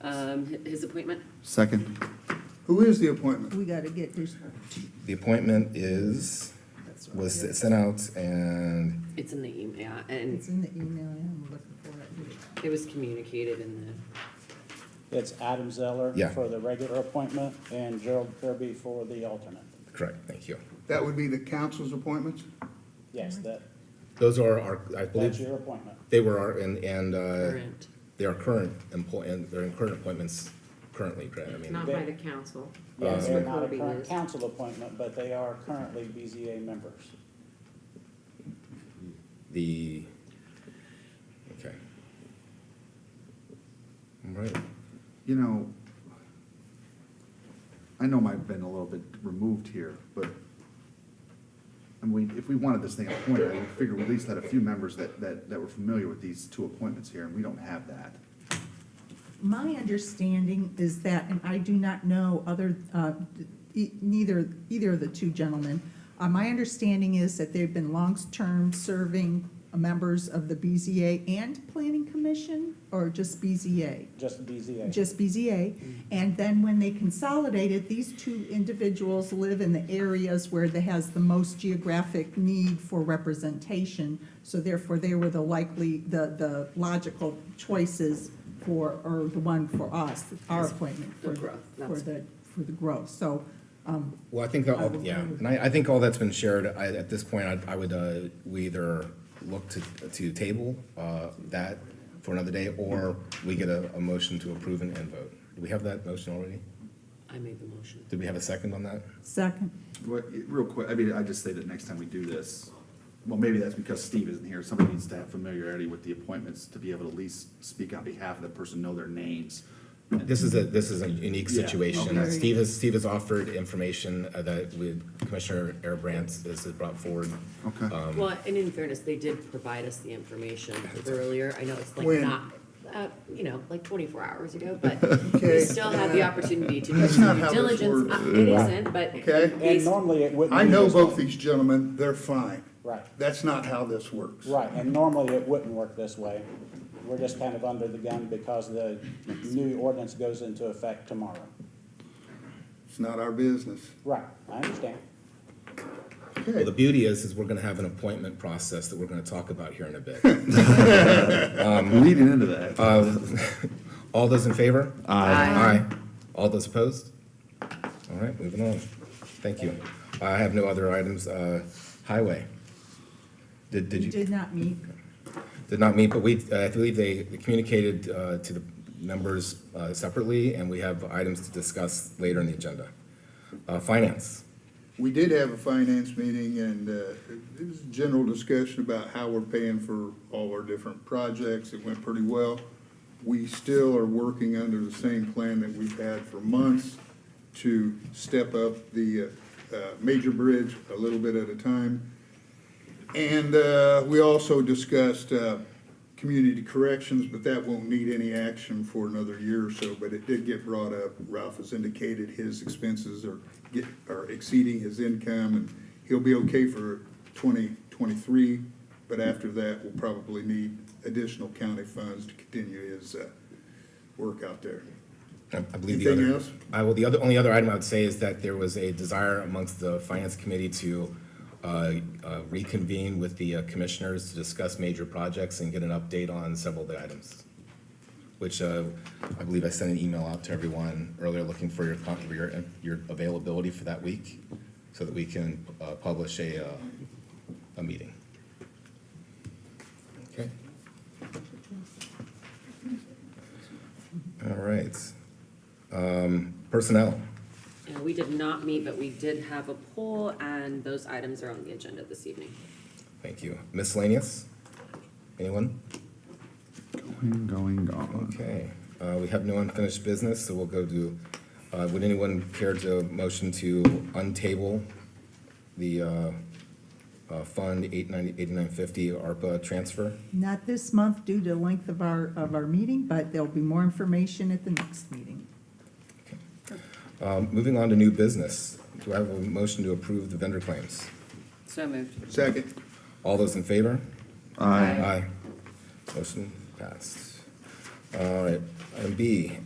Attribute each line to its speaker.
Speaker 1: um, hi- his appointment.
Speaker 2: Second. Who is the appointment?
Speaker 3: We gotta get this.
Speaker 4: The appointment is,
Speaker 3: That's right.
Speaker 4: was sent out and
Speaker 1: It's in the email, and
Speaker 3: It's in the email, yeah, I'm looking for it. here.
Speaker 1: it was communicated in the,
Speaker 5: It's Adam Zeller
Speaker 4: Yeah.
Speaker 5: for the regular appointment and Gerald Kirby for the alternate.
Speaker 4: correct, thank you.
Speaker 2: That would be the council's appointments?
Speaker 5: Yes, that,
Speaker 4: Those are our, I
Speaker 5: that's
Speaker 4: believe,
Speaker 5: your appointment.
Speaker 4: they were our, and, and, uh,
Speaker 1: current,
Speaker 4: they are current employ, and they're in current appointments currently, correct? I mean,
Speaker 6: Not by the council.
Speaker 5: Yeah,
Speaker 4: Uh,
Speaker 5: they're not a
Speaker 1: Kirby
Speaker 5: current
Speaker 1: is.
Speaker 5: council appointment, but they are currently BZA members.
Speaker 4: the, okay. All right,
Speaker 2: You know, I know I've been a little bit removed here, but, I mean, if we wanted this thing appointed, I would figure we at least had a few members that, that, that were familiar with these two appointments here, and we don't have that.
Speaker 3: My understanding is that, and I do not know other, uh, e- neither, either of the two gentlemen, uh, my understanding is that they've been long-term serving members of the BZA and Planning Commission, or just BZA?
Speaker 5: Just BZA.
Speaker 3: just BZA.
Speaker 1: Mm.
Speaker 3: And then when they consolidated, these two individuals live in the areas where they has the most geographic need for representation. So therefore, they were the likely, the, the logical choices for, or the one for us, our appointment for,
Speaker 1: The growth,
Speaker 3: for
Speaker 1: that's-
Speaker 3: the, for the growth. So, um,
Speaker 4: well, I think that,
Speaker 3: I
Speaker 4: all
Speaker 3: will
Speaker 4: yeah,
Speaker 3: move.
Speaker 4: and I, I think all that's been shared, I, at this point, I, I would, uh, we either look to, to table, uh, that for another day, or we get a, a motion to approve and, and vote. Do we have that motion already?
Speaker 1: I made the motion.
Speaker 4: Did we have a second on that?
Speaker 3: second,
Speaker 2: What, real quick, I mean, I just say that next time we do this, well, maybe that's because Steve isn't here, somebody needs to have familiarity with the appointments to be able to at least speak on behalf of the person, know their names.
Speaker 4: This is a, this is a unique
Speaker 2: Yeah,
Speaker 4: situation. Uh,
Speaker 3: okay.
Speaker 4: Steve has, Steve has offered information uh, that we, Commissioner Erbrandt has brought forward.
Speaker 2: Okay.
Speaker 1: Well, and in fairness, they did provide us the information earlier, I know it's like
Speaker 2: When?
Speaker 1: not, uh, you know, like twenty-four hours ago, but
Speaker 2: Okay.
Speaker 1: we still had the opportunity to do
Speaker 2: That's not
Speaker 1: due
Speaker 2: how this
Speaker 1: diligence,
Speaker 2: works.
Speaker 1: Uh, it isn't, but.
Speaker 7: Okay.
Speaker 5: And
Speaker 1: based-
Speaker 5: normally it wouldn't.
Speaker 7: I
Speaker 5: be
Speaker 7: know
Speaker 5: this
Speaker 7: both
Speaker 5: way.
Speaker 7: these gentlemen, they're fine.
Speaker 5: Right.
Speaker 7: That's not how this works.
Speaker 5: Right, and normally it wouldn't work this way. We're just kind of under the gun because the new ordinance goes into effect tomorrow.
Speaker 7: It's not our business.
Speaker 5: Right, I understand.
Speaker 4: Well, the
Speaker 7: Okay,
Speaker 4: beauty is, is we're gonna have an appointment process that we're gonna talk about here in a bit. Um,
Speaker 2: Leading into that.
Speaker 4: uh, All those in favor?
Speaker 1: Aye.
Speaker 4: Aye. All those opposed? All right, moving on. Thank you. I have no other items. Uh, Highway. Did, did
Speaker 3: we
Speaker 4: you,
Speaker 3: did not meet.
Speaker 4: did not meet, but we, uh, I believe they communicated uh, to the members uh, separately, and we have items to discuss later in the agenda. Uh, Finance.
Speaker 7: we did have a finance meeting and uh, it was a general discussion about how we're paying for all our different projects. It went pretty well. We still are working under the same plan that we've had for months to step up the uh, uh, major bridge a little bit at a time. And uh, we also discussed uh, community corrections, but that won't need any action for another year or so. But it did get brought up. Ralph has indicated his expenses are get- are exceeding his income, and he'll be okay for 2023. But after that, we'll probably need additional county funds to continue his uh, work out there.
Speaker 4: I I believe the other.
Speaker 7: Anything else?
Speaker 4: I will, the other, only other item I would say is that there was a desire amongst the finance committee to uh, uh, reconvene with the uh, commissioners to discuss major projects and get an update on several of the items, which uh, I believe I sent an email out to everyone earlier looking for your, con- for your, your availability for that week so that we can uh, publish a, uh, a meeting. Okay? All right. Personnel.
Speaker 1: Uh, we did not meet, but we did have a poll, and those items are on the agenda this evening.
Speaker 4: Thank you. Miscellaneous? Anyone?
Speaker 2: Going, going, gone.
Speaker 4: Okay. Uh, we have no unfinished business, so we'll go to, uh, would anyone care to motion to untable the, uh, uh, Fund eight ninety, eighty-nine fifty ARPA transfer?
Speaker 3: Not this month due to length of our, of our meeting, but there'll be more information at the next meeting.
Speaker 4: Um, moving on to new business. Do I have a motion to approve the vendor claims?
Speaker 1: So moved.
Speaker 7: Second.
Speaker 4: All those in favor?
Speaker 2: Aye.
Speaker 4: Aye. Motion passed. All right. Item B,